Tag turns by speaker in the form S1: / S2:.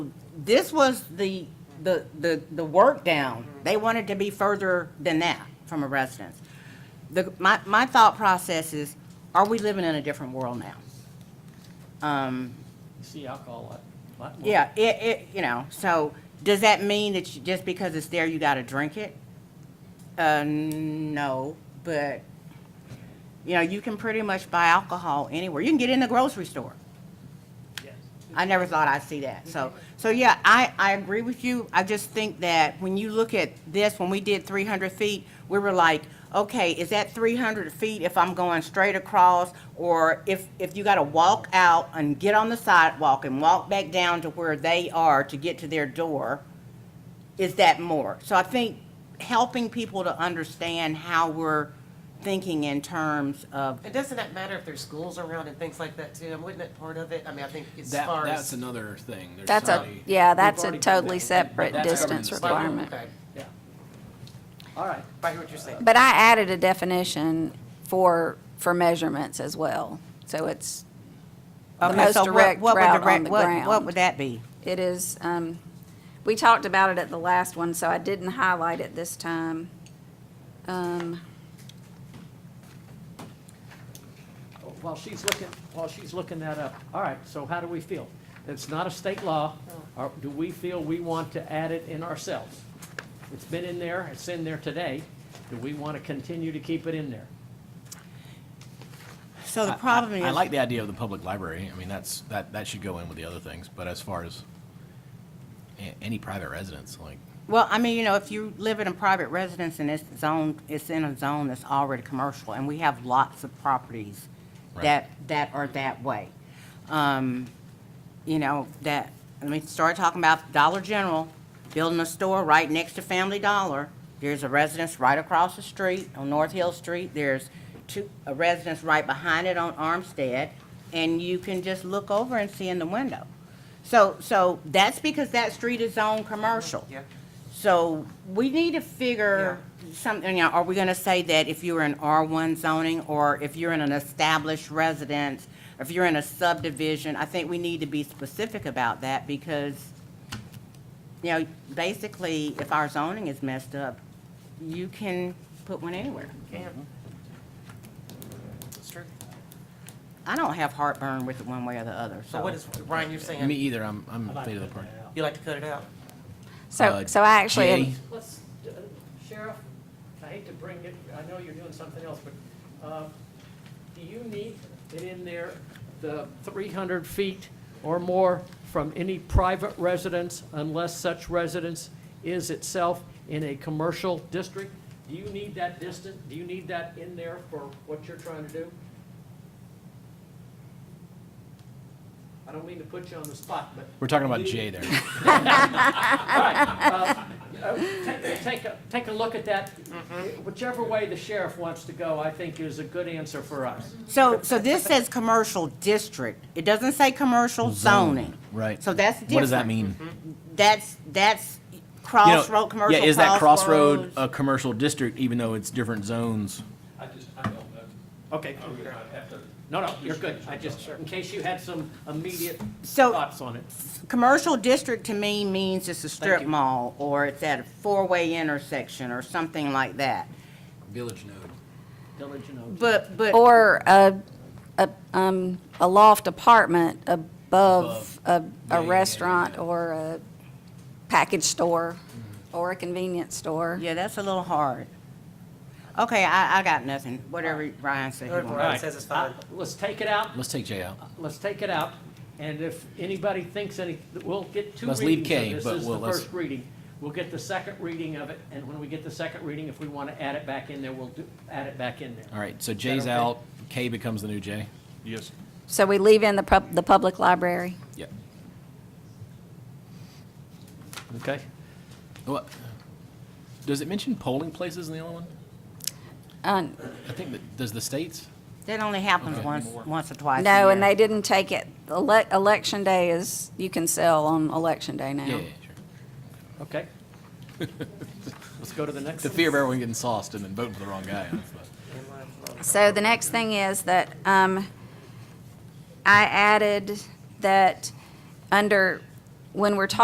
S1: this was the, the, the, the work down. They wanted to be further than that from a residence. The, my, my thought process is, are we living in a different world now? Um,
S2: You see alcohol a lot- a lot. more.
S1: yeah, it, it, you know, so does that mean that you, just because it's there, you gotta drink it? Uh, no, but, you know, you can pretty much buy alcohol anywhere. You can get in the grocery store.
S2: Yes.
S1: I never thought I'd see that. So, so yeah, I, I agree with you. I just think that when you look at this, when we did three hundred feet, we were like, okay, is that three hundred feet if I'm going straight across? Or if, if you gotta walk out and get on the sidewalk and walk back down to where they are to get to their door, is that more? So I think helping people to understand how we're thinking in terms of,
S3: And doesn't that matter if there's schools around and things like that too? And wouldn't it part of it? I mean, I think as
S4: That,
S3: far as.
S4: that's another thing. There's
S5: That's a,
S4: already-
S5: yeah, that's a
S2: already-
S5: totally
S2: but
S5: separate
S4: that's government's-
S5: distance
S3: But-
S5: requirement.
S3: okay.
S2: Yeah. All right.
S3: But I hear what you're saying.
S5: But I added a definition for, for measurements as well. So it's, The
S1: okay,
S5: most
S1: so what,
S5: direct
S1: what would
S5: route
S1: the, re-
S5: on the
S1: what, what
S5: ground.
S1: would that be?
S5: it is, um, we talked about it at the last one, so I didn't highlight it this time. Um,
S2: While she's looking, while she's looking that up, all right, so how do we feel? It's not a state law. Or do we feel we want to add it in ourselves? It's been in there, it's in there today. Do we want to continue to keep it in there?
S1: So the
S4: I- I-
S1: problem is.
S4: I like the idea of the public library. I mean, that's, that, that should go in with the other things, but as far as a- any private residence, like,
S1: Well, I mean, you know, if you live in a private residence and it's zoned, it's in a zone that's already commercial, and we have lots of properties
S4: Right.
S1: that, that are that way. Um, you know, that, let me start talking about Dollar General, building a store right next to Family Dollar. There's a residence right across the street on North Hill Street. There's two, a residence right behind it on Armstead, and you can just look over and see in the window. So, so that's because that street is zoned commercial.
S3: Yeah.
S1: So we need to figure something, you know, are we gonna say that if you're in R one zoning or if you're in an established residence, if you're in a subdivision, I think we need to be specific about that because, you know, basically, if our zoning is messed up, you can put one anywhere.
S3: Yeah. It's true.
S1: I don't have heartburn with it one way or the other, so.
S3: So what is, Brian, you're
S4: me
S3: saying,
S4: either, I'm, I'm
S2: I'd like
S4: state of the
S2: to
S4: park.
S2: cut that out.
S3: you like to cut it out?
S5: So,
S4: Uh,
S5: so I actually,
S4: Jay?
S2: Let's, uh, Sheriff, I hate to bring it, I know you're doing something else, but uh, do you need it in there, the 300 feet or more from any private residence unless such residence is itself in a commercial district? Do you need that distance, do you need that in there for what you're trying to do? I don't mean to put you on the spot, but.
S4: We're talking about
S2: Do you-
S4: Jay there.
S2: uh, take- Take, a- take a look at that.
S4: Mm-hmm.
S2: Whichever way the sheriff wants to go, I think is a good answer for us.
S1: So, so this says commercial district. It doesn't say commercial zoning.
S4: Right.
S1: So that's different.
S4: What does that mean?
S1: That's, that's
S4: You know,
S1: crossroad, commercial
S4: Yeah, is that crossroad
S1: crossroads.
S4: a commercial district, even though it's different zones?
S6: I just, I don't know.
S2: Okay.
S6: I would not have to.
S2: No, no, you're good. I just, in case you had some immediate
S1: So-
S2: thoughts on it.
S1: Commercial district to me means it's a strip
S2: you.
S1: mall, or it's at a four-way intersection, or something like that.
S4: Village node.
S2: Village and Oaks.
S1: But, but.
S5: or a, a, um, a loft apartment above a,
S4: Yeah, yeah,
S5: a
S4: yeah,
S5: restaurant
S4: yeah. Mm-hmm.
S5: or a package store or a convenience store.
S1: Yeah, that's a little hard. Okay, I, I got nothing, whatever Ryan said he
S3: Whatever
S1: wanted.
S3: Brian
S2: Right.
S3: says it's fine.
S2: Uh, Let's take it out.
S4: Let's take Jay out.
S2: Let's take it out. And if anybody thinks any, we'll get two
S4: Let's leave
S2: readings
S4: K,
S2: of this.
S4: but
S2: This is
S4: we'll-
S2: the
S4: let's-
S2: first reading. We'll get the second reading of it. And when we get the second reading, if we want to add it back in there, we'll do, add it back in there.
S4: All right, so Jay's
S2: okay?
S4: out, K becomes the new Jay.
S6: Yes.
S5: So we leave in the pub, the public library.
S4: Yep.
S2: Okay.
S4: What? Does it mention polling places in the other one?
S5: Uh,
S4: I think that, does the states?
S1: That only happens
S4: Okay.
S1: once, once or twice a
S5: No, and
S1: year.
S5: they didn't take it. Ele- election day is, you can sell on election day
S4: Yeah,
S5: now.
S4: yeah, sure.
S2: Okay. Let's go to the next
S4: The
S2: one.
S4: fear of everyone getting sauced and then voting for the wrong guy. That's the-
S5: So the next thing is that, um, I added that under, when we're talking